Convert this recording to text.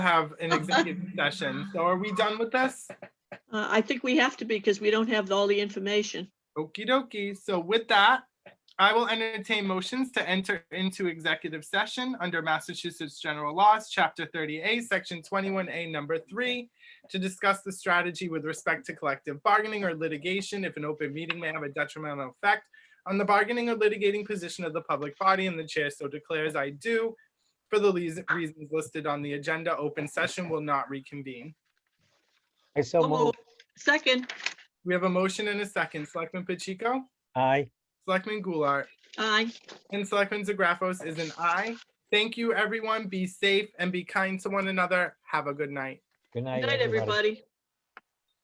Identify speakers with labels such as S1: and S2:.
S1: have an executive session. So are we done with this?
S2: Uh, I think we have to be because we don't have all the information.
S1: Okie dokie. So with that, I will entertain motions to enter into executive session under Massachusetts General Laws, Chapter 30A, Section 21A, Number 3, to discuss the strategy with respect to collective bargaining or litigation if an open meeting may have a detrimental effect on the bargaining or litigating position of the public body and the chair so declares I do. For the leas- reasons listed on the agenda, open session will not reconvene.
S3: I so
S2: So
S3: move.
S2: moved. Second,
S1: We have a motion and a second. Selectman Pacheco?
S3: Aye.
S1: Selectman Goulart?
S2: aye.
S1: And Selectman Zagrafos is an aye. Thank you, everyone. Be safe and be kind to one another. Have a good night.
S3: Good night,
S2: Good night,
S3: everybody.
S2: everybody.